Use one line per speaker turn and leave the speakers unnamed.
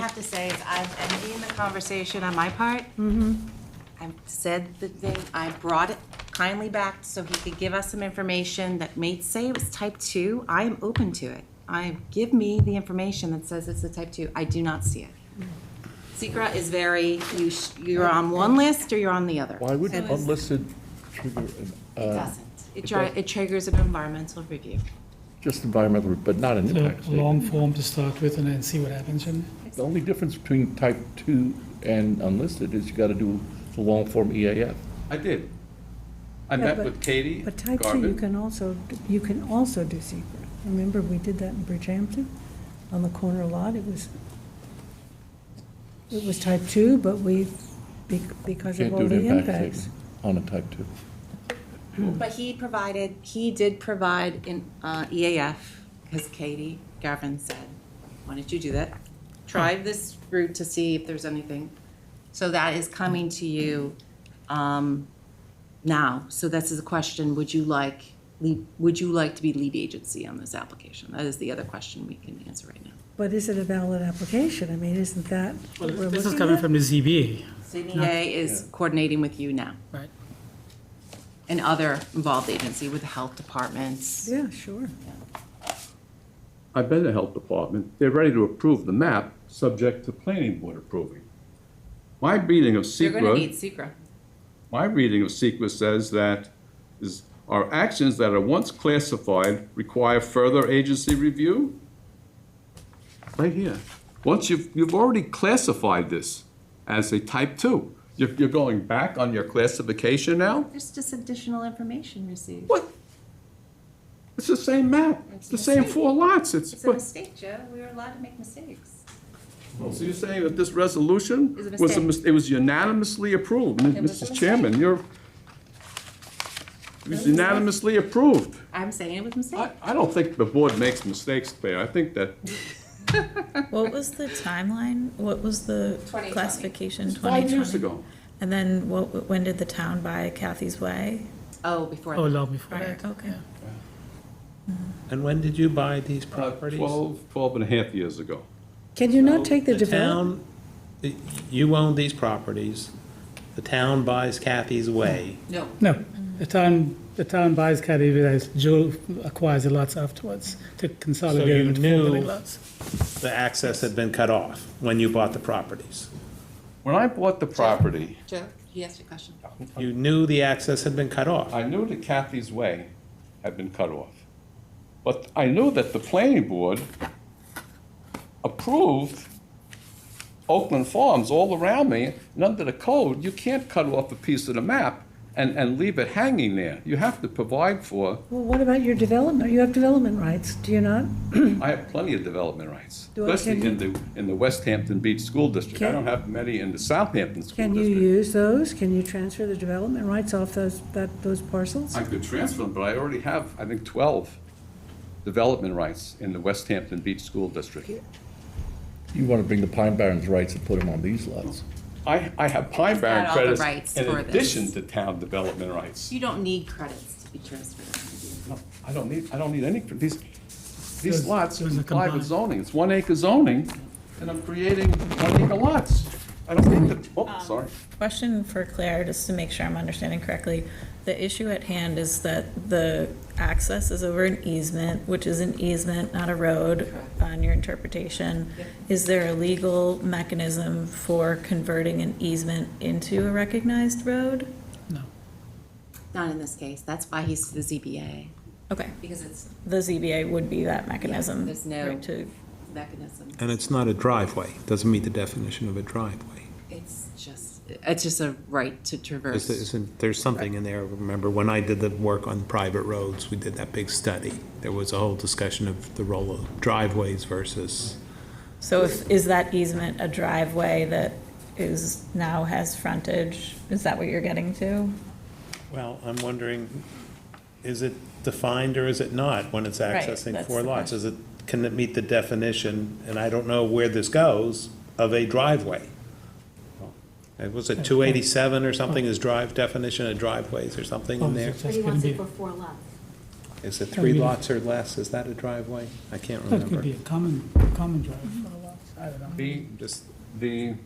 to say is I'm ending the conversation on my part. I said the thing, I brought it kindly back so he could give us some information that may say it was type two. I am open to it. I, give me the information that says it's a type two. I do not see it. Secra is very, you, sh- you're on one list or you're on the other.
Why would unlisted trigger, an,
It
uh,
doesn't. It dri- it triggers an environmental review.
just environmental, but not an
So
impact statement?
long form to start with and then see what happens. And
The only difference between type two and unlisted is you gotta do the E long form EAF.
I did. I
Yeah,
met
but-
with Katie
But type two, you
Garvin.
can also, you can also do secret. Remember, we did that in Bridgehampton, on the corner lot, it was, it was type two, but we, be- because of
Can't
all
do an
the
impact statement
impacts.
on a type two.
But he provided, he did provide an uh, EAF, because Katie Gavin said, why don't you do that? Try this route to see if there's anything. So that is coming to you um, now. So this is a question, would you like, lead- would you like to be lead agency on this application? That is the other question we can answer right now.
But is it a valid application? I mean, isn't that
Well,
what we're
this is
looking
coming
at?
from the ZBA,
CBA is coordinating with you now
right?
and other involved agency with the health departments.
Yeah, sure.
I've been to Health Department. They're ready to approve the map, subject to planning board approving. My reading of
You're going to need
secret,
Secra.
my reading of secret says that is, are actions that are once classified require further agency review? Right here. Once you've, you've already classified this as a type two. You're, you're going back on your classification now?
There's just additional information received.
What? It's the same map. It's the same four lots. It's,
It's a
what?
mistake, Joe. We were allowed to make mistakes.
So you're saying that this resolution
It's a
was, a
mistake.
mis- it was unanimously approved, M-
It was a
Mrs. Chairman, you're, it was unanimously approved.
I'm saying it was a mistake.
I, I don't think the board makes mistakes, Claire, I think that,
What was the timeline? What was the
2020.
classification?
five years
2020?
ago. uh,
And then what, when did the town buy Kathy's Way?
Oh, before.
Oh, long before
Prior-
that.
Okay.
And when did you buy these
uh,
properties?
twelve, twelve and a half years ago.
Can you not take the
The
develop?
town, y- you own these properties, the town buys Kathy's Way.
No.
No, the town, the town buys Caddy Villas, Joe acquires the lots afterwards to
So
consolidate
you
them into four
knew-
building lots.
The access had been cut off when you bought the properties.
When I bought the property,
Joe, he asked a question.
You knew the access had been cut off.
I knew that Kathy's Way had been cut off. But I knew that the planning board approved Oakland Farms all around me, and under the code, you can't cut off a piece of the map and, and leave it hanging there. You have to provide for,
Well, what about your development? You have development rights, do you not?
I have plenty of development rights,
Do I-
especially in the, in the West Hampton Beach School District. I
Can-
don't have many in the Southampton School
Can you
District.
use those? Can you transfer the development rights off those, that, those parcels?
I could transfer them, but I already have, I think, 12 development rights in the West Hampton Beach School District.
You wanna bring the Pine Barrens rights and put them on these lots.
I, I have Pine
It's
Barren
got all the
credits
rights
in
for this.
addition to town development rights.
You don't need credits to be transferred.
No, I don't need, I don't need any, cr- these, these
Those-
lots
those are
comply with
combined.
zoning. It's one acre zoning, and I'm creating one acre lots. I don't need to,
Um,
oh, sorry.
Question for Claire, just to make sure I'm understanding correctly. The issue at hand is that the access is over an easement, which is an easement, not a road, on your interpretation. Is there a legal mechanism for converting an easement into a recognized road?
Not in this case. That's why he's the ZBA,
Okay,
because it's
the ZBA would be that mechanism.
there's no-
right, To
mechanism.
And it's not a driveway, doesn't meet the definition of a driveway.
It's just, it's just a right to
Is there-
traverse.
isn't- There's something in there, remember, when I did the work on private roads, we did that big study. There was a whole discussion of the role of driveways versus
So if, is that easement a driveway that is, now has frontage? Is that what you're getting to?
Well, I'm wondering, is it defined or is it not when it's
Right,
accessing
that's
four
the
lots? Is it, can it meet the definition, and I don't know where this goes, of a driveway? Uh, Was it two eighty-seven or
Oh.
something, is drive, definition of driveways or something in there?
That's gonna be,
Is it three lots or less, is that a driveway? I can't
that could be
remember.
a common, common drive.
I don't know.
The,
Just
the